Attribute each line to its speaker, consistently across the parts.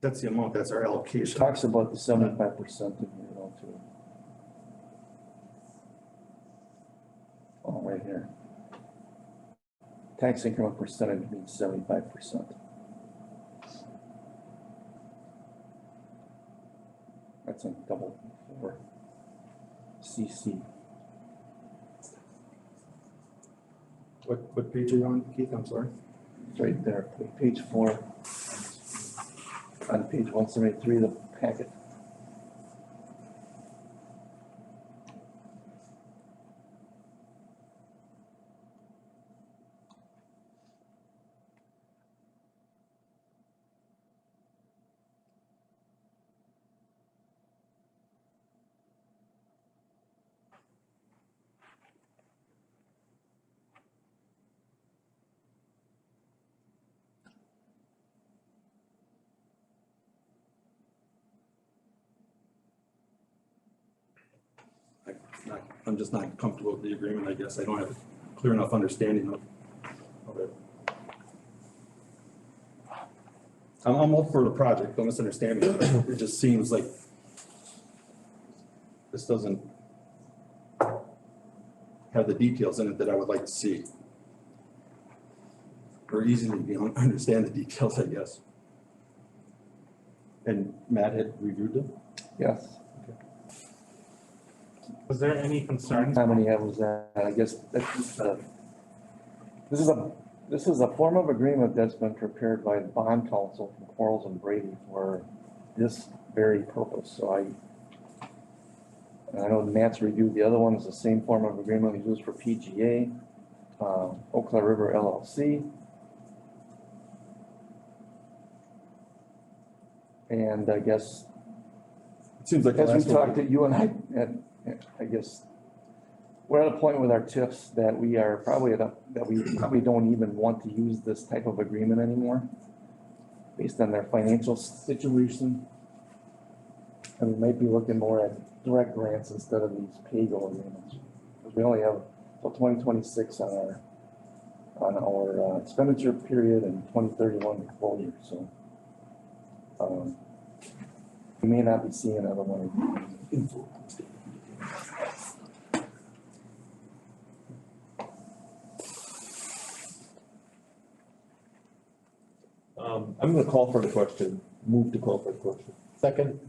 Speaker 1: That's the amount, that's our allocation.
Speaker 2: Talks about the seventy-five percent in here, though, too. Oh, right here. Tax increment percentage means seventy-five percent. That's on double four. CC,
Speaker 1: What, what page are you on, Keith? I'm sorry.
Speaker 2: it's right there, page four. On page one seventy-three, the packet.
Speaker 1: I- not- I'm just not comfortable with the agreement, I guess. I don't have a clear enough understanding of of it. I'm, I'm all for the project, don't misunderstand me. It just seems like this doesn't have the details in it that I would like to see. Or easy to be- understand the details, I guess. And Matt had reviewed them?
Speaker 2: Yes,
Speaker 3: Was there any concerns?
Speaker 2: how many was that? I guess that's, uh, this is a, this is a form of agreement that's been prepared by the bond council from Quarles and Brady for this very purpose, so I and I know Matt's reviewed the other one, it's the same form of agreement we used for PGA, uh, Eau Claire River LLC. And I guess
Speaker 1: It seems like. the
Speaker 2: as
Speaker 1: last
Speaker 2: we
Speaker 1: one-
Speaker 2: talked, to you and I, and- and I guess, we're at a point with our tips that we are probably at a, that we probably don't even want to use this type of agreement anymore, based on their financial situation. And we might be looking more at direct grants instead of these pay-go agreements. 'Cause We only have till twenty twenty-six on our, on our uh, expenditure period and twenty thirty-one year. so. um, We may not be seeing another one of these.
Speaker 4: Um, I'm gonna call for the question, move to call for the question. Second,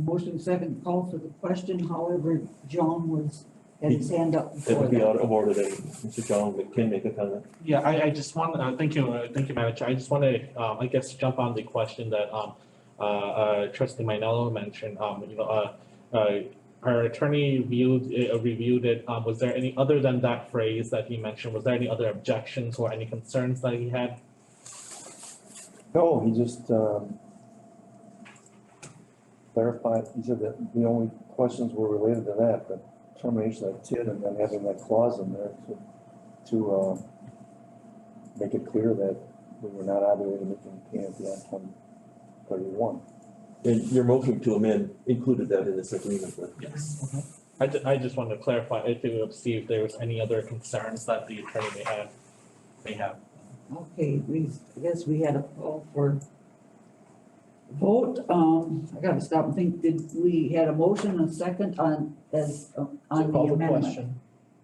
Speaker 5: Motion second call for the question, however, John was, had his hand up
Speaker 4: it
Speaker 5: before
Speaker 4: would be
Speaker 5: that.
Speaker 4: out of order that Mr. John can make a comment.
Speaker 3: Yeah, I, I just want, uh, thank you, uh, thank you, Madam Chair. I just want to, um, I guess, jump on the question that, um, uh, uh, trustee Minello mentioned, um, you know, uh, uh, our attorney reviewed, uh, reviewed it. Um, was there any, other than that phrase that he mentioned, was there any other objections or any concerns that he had?
Speaker 2: No, he just, um, clarified, he said that the only questions were related to that, the termination of TID and then having that clause in there to, to, uh, make it clear that we were not obligated to make any payment beyond twenty thirty-one.
Speaker 4: And your motion to amend included that in this agreement, but
Speaker 3: Yes. I ju- I just wanted to clarify, if it would see if there was any other concerns that the attorney may have, may have.
Speaker 5: Okay, we, I guess we had a call for vote, um, I gotta stop and think, did, we had a motion and second on, as, uh, on the amendment,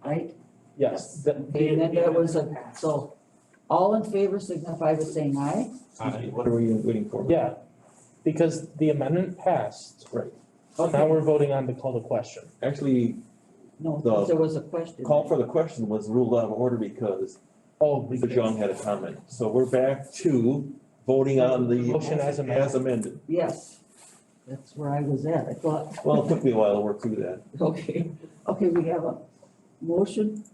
Speaker 5: right?
Speaker 3: Yes.
Speaker 5: Okay, and then there was a, so, all in favor signify by saying aye.
Speaker 3: Aye.
Speaker 4: what are we waiting for?
Speaker 6: Yeah, because the amendment passed,
Speaker 4: Right,
Speaker 6: so now we're voting on to call the question.
Speaker 4: actually,
Speaker 5: No,
Speaker 4: The-
Speaker 5: because there was a question.
Speaker 4: call for the question was ruled out of order because
Speaker 6: Oh, we
Speaker 4: Mr. John had a comment. So we're back to voting on the.
Speaker 6: Motion as amended.
Speaker 4: As amended.
Speaker 5: Yes, that's where I was at, I thought,
Speaker 4: Well, it took me a while to work through that.
Speaker 5: okay, okay, we have a motion,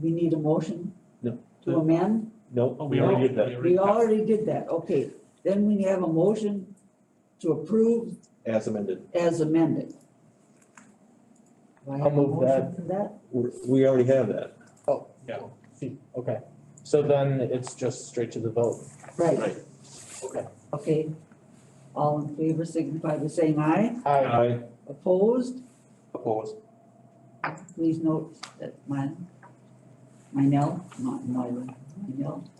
Speaker 5: we need a motion
Speaker 4: No.
Speaker 5: to amend,
Speaker 4: No,
Speaker 3: Oh,
Speaker 4: we already did that
Speaker 5: we already did that, okay, then we have a motion to approve
Speaker 4: as amended.
Speaker 5: as amended. Do I have
Speaker 6: I'll
Speaker 5: a
Speaker 6: move
Speaker 5: motion for that?
Speaker 4: We're- We already have that.
Speaker 6: See, Okay, so then it's just straight to the vote.
Speaker 5: Right,
Speaker 4: Right.
Speaker 5: okay, all in favor signify by saying aye,
Speaker 6: I,
Speaker 4: I
Speaker 5: opposed?
Speaker 4: oppose.
Speaker 5: Please note that my, my no, not my, my no.